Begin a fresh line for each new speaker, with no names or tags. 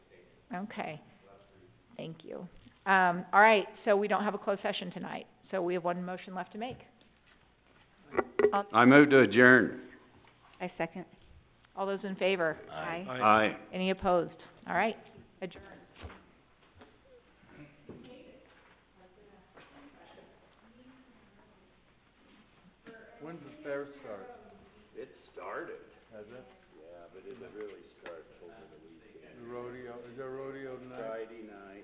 Okay. Thank you. Um, all right, so we don't have a closed session tonight, so we have one motion left to make.
I move to adjourn.
I second.
All those in favor?
Aye.
Aye.
Any opposed? All right, adjourn.
When does fair start?
It started.
Has it?
Yeah, but it really started over the weekend.
The rodeo, is there rodeo tonight?
Friday night.